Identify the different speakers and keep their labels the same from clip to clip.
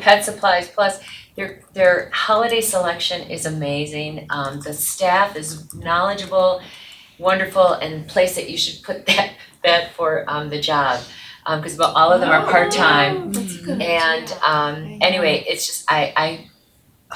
Speaker 1: Pet supplies plus their their holiday selection is amazing. Um the staff is knowledgeable, wonderful and place that you should put that that for um the job. Um cuz all of them
Speaker 2: Oh,
Speaker 1: are part-time
Speaker 3: That's good.
Speaker 1: and um
Speaker 3: I
Speaker 1: anyway, it's just I I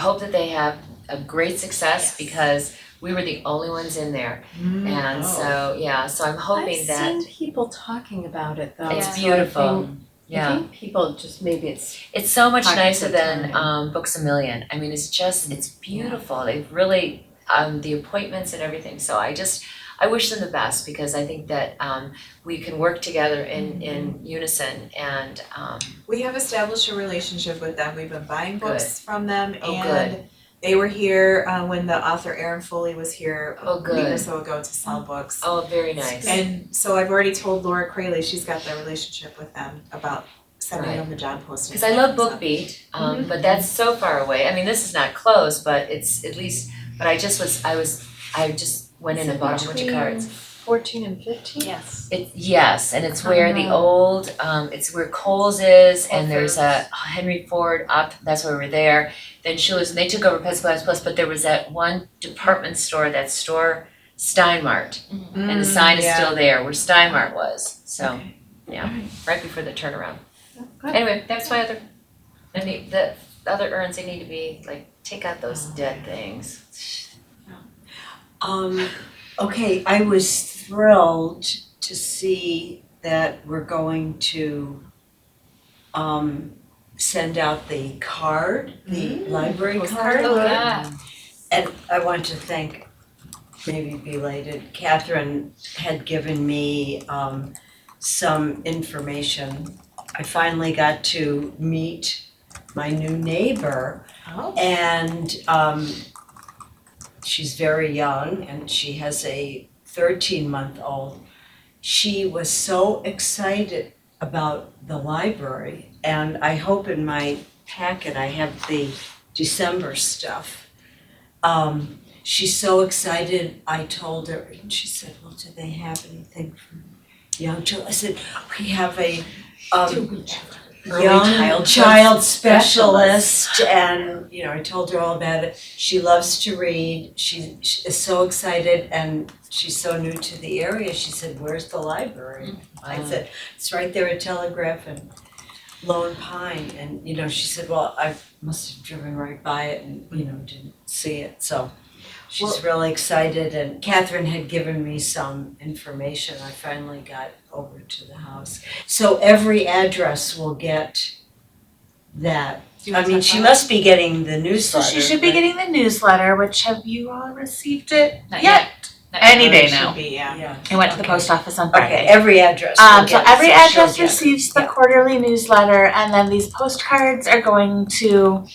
Speaker 1: hope that they have a great success
Speaker 3: Yes.
Speaker 1: because we were the only ones in there.
Speaker 3: Mm.
Speaker 1: And so yeah, so I'm hoping that
Speaker 4: I've seen people talking about it though.
Speaker 1: it's
Speaker 4: so I
Speaker 1: beautiful.
Speaker 4: think-
Speaker 1: Yeah.
Speaker 4: I think people just, maybe it's,
Speaker 1: It's so much
Speaker 4: Pockets
Speaker 1: nicer
Speaker 4: of
Speaker 1: than
Speaker 4: time.
Speaker 1: um Books a Million. I mean, it's just it's beautiful. They've really um the appointments and everything. So I just I wish them the best because I think that um we can work together in in unison and um
Speaker 3: We have established a relationship with them, we've been buying books from them
Speaker 1: Oh,
Speaker 3: and they were here uh when the author Aaron Foley was here
Speaker 1: Oh,
Speaker 3: a week or
Speaker 1: good.
Speaker 3: so ago to sell books.
Speaker 1: oh very nice.
Speaker 3: And so I've already told Laura Crayley, she's got the relationship with them about sending
Speaker 1: Right.
Speaker 3: them the job posting.
Speaker 1: Cause I love Book Beat, um but that's so far away. I mean, this is not close, but it's at least, but I just was, I was, I just went in and bought a bunch of
Speaker 4: between-
Speaker 1: cards.
Speaker 4: fourteen and fifteen?
Speaker 5: Yes.
Speaker 1: It, yes, and it's where the
Speaker 4: Oh.
Speaker 1: old, um, it's where Coles is, and
Speaker 5: Whole
Speaker 1: there's a Henry Ford up, that's where we were there. Then Schuler's, and they took over Pet Supplies Plus, but there was that one department store, that store Steinmart, and the
Speaker 3: Mm,
Speaker 1: sign is still there where Steinmart was, so,
Speaker 4: Okay.
Speaker 1: yeah, right before the turnaround.
Speaker 4: Good.
Speaker 1: Anyway, that's my other, I need, the other urns, they need to be, like, take out those dead things.
Speaker 6: Um, okay, I was thrilled to see that we're going to um send out the card, the library card.
Speaker 5: Mm. Oh, yeah.
Speaker 6: And I want to thank, maybe belated, Catherine had given me um some information. I finally got to meet my new neighbor
Speaker 3: Oh.
Speaker 6: and um she's very young and she has a thirteen month old. She was so excited about the library and I hope in my packet I have the December stuff. Um she's so excited, I told her and she said, Well, do they have anything for young children? I said, We have a um
Speaker 4: Early
Speaker 6: young
Speaker 4: childhood
Speaker 6: child specialist and, you know, I told her all about it. She loves to read, she she is so excited and she's so new to the area, she said, where's the library?
Speaker 2: Mm,
Speaker 6: I said, it's right there at Telegraph and Lone Pine and, you know, she said, well, I must have driven right by it and, you know, didn't see it, so. She's really excited and Catherine had given me some information, I finally got over to the house. So every address will get that. I mean, she must be getting the
Speaker 2: So
Speaker 6: newsletter.
Speaker 2: she should be
Speaker 6: but-
Speaker 2: getting the newsletter, which have you all received it?
Speaker 5: Not
Speaker 2: yet.
Speaker 5: Not yet.
Speaker 2: Any day
Speaker 3: Should
Speaker 2: now.
Speaker 3: be, yeah.
Speaker 6: Yeah.
Speaker 2: I went to the
Speaker 6: Okay.
Speaker 2: post office on
Speaker 6: Okay,
Speaker 2: Friday.
Speaker 6: every address will
Speaker 2: Um, so
Speaker 6: get it,
Speaker 2: every
Speaker 6: she'll
Speaker 2: address
Speaker 6: get it.
Speaker 2: receives the
Speaker 6: Yeah.
Speaker 2: quarterly newsletter and then these postcards are going to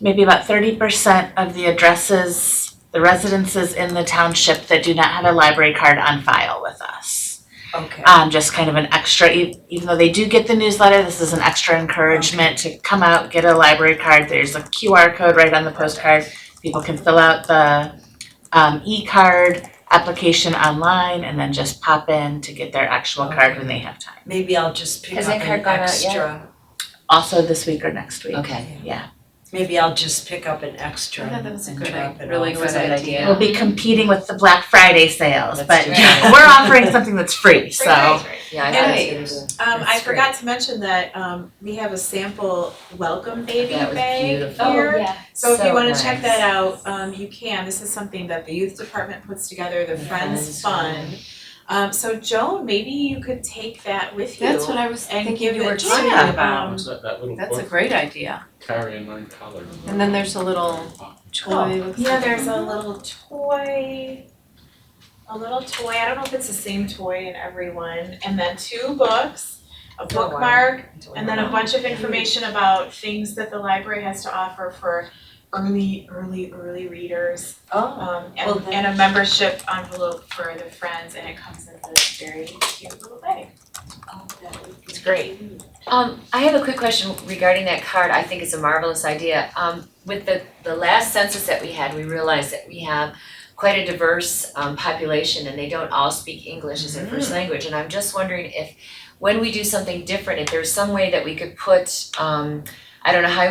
Speaker 2: maybe about thirty percent of the addresses, the residences in the township that do not have a library card on file with us.
Speaker 6: Okay.
Speaker 5: Uh,
Speaker 2: um, just kind of an extra, e- even though they do get the newsletter, this is an extra encouragement to come out, get a library card. There's a QR code right on the postcard. People can fill out the um, e-card application online and then just pop in to get their actual card when they have time.
Speaker 6: Maybe I'll just pick
Speaker 1: Has
Speaker 6: up
Speaker 1: that card
Speaker 6: an
Speaker 1: gone out yet?
Speaker 6: extra,
Speaker 2: Also this week or next week.
Speaker 1: Okay.
Speaker 6: maybe I'll just pick up an extra
Speaker 5: Yeah, that was a
Speaker 6: and
Speaker 5: good,
Speaker 6: drop it
Speaker 5: really
Speaker 6: off.
Speaker 1: was
Speaker 5: good
Speaker 1: a good
Speaker 5: idea.
Speaker 1: idea.
Speaker 2: We'll be competing with the Black Friday sales,
Speaker 1: That's
Speaker 2: but
Speaker 1: right.
Speaker 2: we're offering something that's free, so.
Speaker 1: Yeah, I thought it was
Speaker 3: Nice.
Speaker 1: gonna be,
Speaker 3: Um, I
Speaker 1: That's
Speaker 3: forgot to mention that, um, we have a sample welcome baby
Speaker 1: That was
Speaker 3: bag here.
Speaker 1: beautiful.
Speaker 5: Oh, yeah.
Speaker 3: So if
Speaker 1: So
Speaker 3: you wanna check
Speaker 1: nice.
Speaker 3: that out, um, you can, this is something that the youth department puts together, the
Speaker 1: The
Speaker 3: Friends
Speaker 1: Friends
Speaker 3: Fund. Um, so Joan, maybe you could take that with you
Speaker 4: That's what I was
Speaker 3: and
Speaker 4: thinking
Speaker 3: give
Speaker 4: you were
Speaker 3: it to,
Speaker 4: talking
Speaker 2: yeah.
Speaker 3: um,
Speaker 7: What's that, that little
Speaker 4: That's a
Speaker 7: book,
Speaker 4: great idea.
Speaker 7: Carrie and Mine Color?
Speaker 4: And then there's a little
Speaker 2: Oh,
Speaker 4: Toy looks
Speaker 3: yeah,
Speaker 4: like-
Speaker 3: there's a little toy, a little toy, I don't know if it's the same toy in every one, and then two books,
Speaker 1: Oh,
Speaker 3: a
Speaker 1: wow.
Speaker 3: bookmark,
Speaker 1: do
Speaker 3: And then a bunch of information about things that the library has to offer for early, early, early readers.
Speaker 6: Oh,
Speaker 3: Um,
Speaker 6: Well,
Speaker 3: and,
Speaker 6: then-
Speaker 3: and a membership envelope for the friends, and it comes in this very cute little bag.
Speaker 6: Oh,
Speaker 3: It's great.
Speaker 1: Um, I have a quick question regarding that card. I think it's a marvelous idea. Um, with the, the last census that we had, we realized that we have quite a diverse, um, population and they don't all speak English as their first language. And I'm just wondering if, when we do something different, if there's some way that we could put, um, I don't know how